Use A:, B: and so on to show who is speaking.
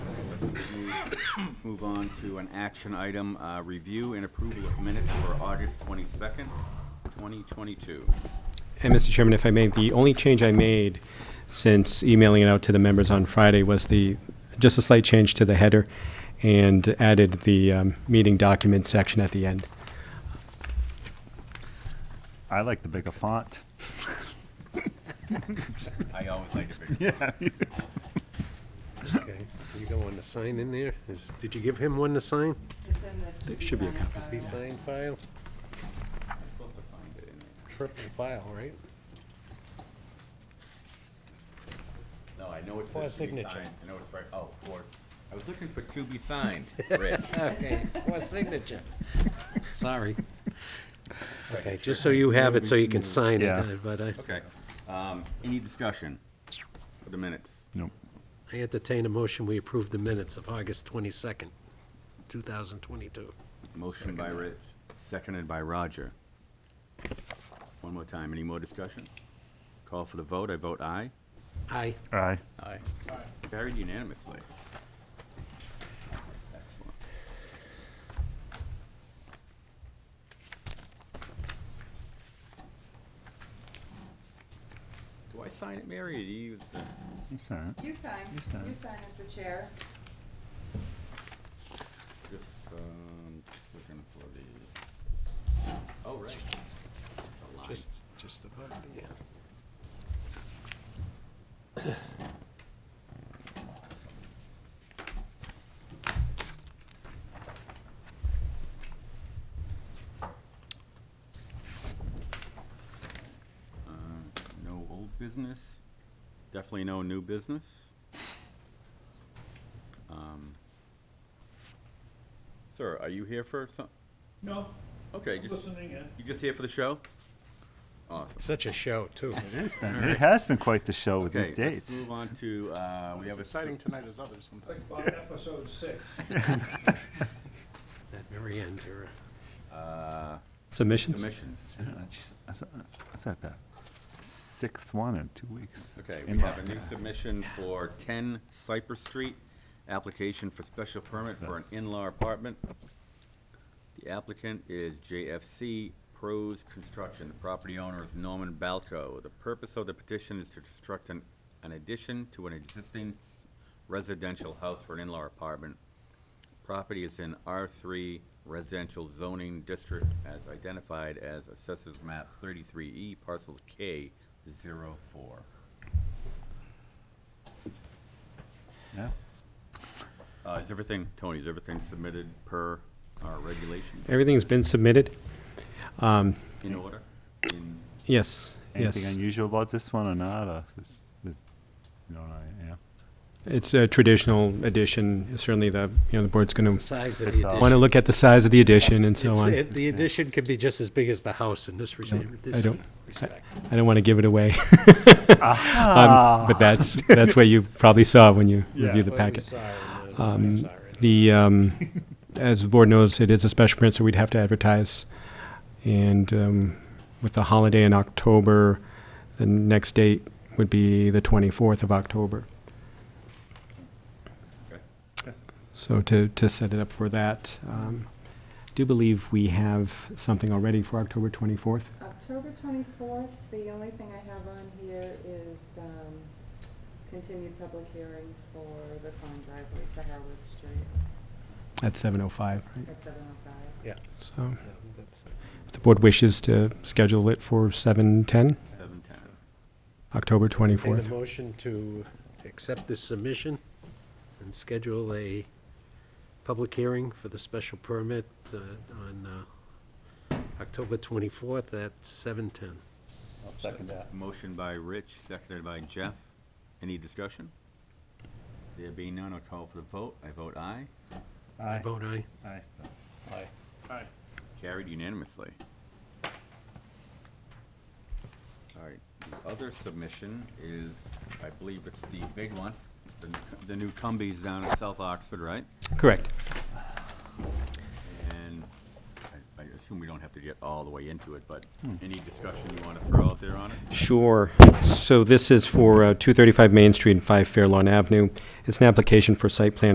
A: Move- Move on to an action item, uh, review and approval of minutes for August twenty-second, twenty twenty-two.
B: And Mr. Chairman, if I may, the only change I made since emailing it out to the members on Friday was the, just a slight change to the header and added the um, meeting document section at the end.
C: I like the bigger font.
A: I always like to pick.
C: Yeah.
D: Okay, you got one to sign in there? Is, did you give him one to sign?
E: It's in the.
B: There should be a copy.
D: He signed file,
A: I'm supposed to find it in there.
D: triple file, right?
A: No, I know it
D: For a
A: says to be
D: signature.
A: signed. I know it's right, oh, of course. I was looking for to be signed, Rich.
D: Okay, what signature? Sorry. Okay,
A: Right,
D: just so
A: sure.
D: you have it, so you can sign it,
C: Yeah.
D: uh, but I,
A: Okay, um, any discussion for the minutes?
C: Nope.
D: I entertain a motion, we approve the minutes of August twenty-second, two thousand twenty-two.
A: Motion by Rich, seconded by Roger. One more time, any more discussion? Call for the vote, I vote aye.
D: Aye.
C: Aye.
A: Aye. Carried unanimously. Excellent. Do I sign it, Mary, or do you use the?
C: That's all right.
E: You sign,
C: sign.
E: you sign as the chair.
A: Just, um, looking for the, oh, right. The line.
D: Just, just about, yeah.
A: Uh, No old business, definitely no new business. Um, Sir, are you here for some,
F: No,
A: okay,
F: I'm
A: just,
F: listening in.
A: you just here for the show? Awesome.
D: Such a show, too.
C: It is been- It has been quite the show with
A: Okay,
C: these
A: let's
C: dates.
A: move on to, uh, we have a.
G: exciting
A: sec-
G: tonight as others sometimes.
F: Click on episode six.
D: That very end, you're,
A: uh,
B: Submissions?
A: Submissions.
C: I don't know, geez, I thought- I thought the sixth one in two weeks.
A: Okay,
C: In
A: we have a
C: luck.
A: new submission for 10 Cypress Street, application for special permit for an in-law apartment. The applicant is JFC Pros Construction. The property owner is Norman Balco. The purpose of the petition is to construct an, an addition to an existing residential house for an in-law apartment. Property is in R3 residential zoning district as identified as assessors map 33E parcel K04.
C: Yeah.
A: Uh, is everything, Tony, is everything submitted per our regulation
B: Everything's been submitted? Um,
A: in order? In,
B: Yes,
C: Anything
B: yes.
C: unusual about this one or not? or this- this- You know, I- yeah.
B: It's a traditional addition. Certainly the, you know, the board's going
D: the
B: to
D: size of the
C: It's all-
B: want to
D: addition.
B: look at the size of the addition and so
D: It's-
B: on.
D: it- The addition could be just as big as the house in this
B: No,
D: respect.
B: I
D: this
B: don't, I-
D: respect.
B: I don't want to give it away.
C: Ah!
B: Um, But that's, that's what you probably saw when you
C: Yeah.
B: reviewed the
D: Well, we
B: packet.
D: saw it, uh, we
B: Um,
D: saw it.
B: The, um, as the board knows, it is a special permit, so we'd have to advertise. And um, with the holiday in October, the next date would be the 24th of October.
A: okay.
B: So to, to set it up for that, um, do believe we have something already for October 24th?
E: October twenty-fourth, the only thing I have on here is, um, continued public hearing for the common driveway for Harwood Street
B: At 7:05, right?
E: at seven oh five.
D: Yeah,
B: So
D: yeah, that's-
B: if the board wishes to schedule it for 7:10,
A: seven ten?
B: October
D: Take a
B: 24th.
D: motion to accept this submission and schedule a public hearing for the special permit uh, on uh, October 24th at 7:10.
G: I'll second that.
A: Motion by Rich, seconded by Jeff. Any discussion? There being none, I'll call for the vote. I vote aye.
C: Aye.
D: Vote aye.
C: Aye.
G: Aye. Aye.
A: Carried unanimously. All right, the other submission is, I believe it's the big one, the, the new Cumbies down in South Oxford, right?
B: Correct.
A: And I, I assume we don't have to get all the way into it, but any discussion you want to throw out there on it?
B: Sure. So this is for uh, 235 Main Street and 5 Fairlawn Avenue. It's an application for site plan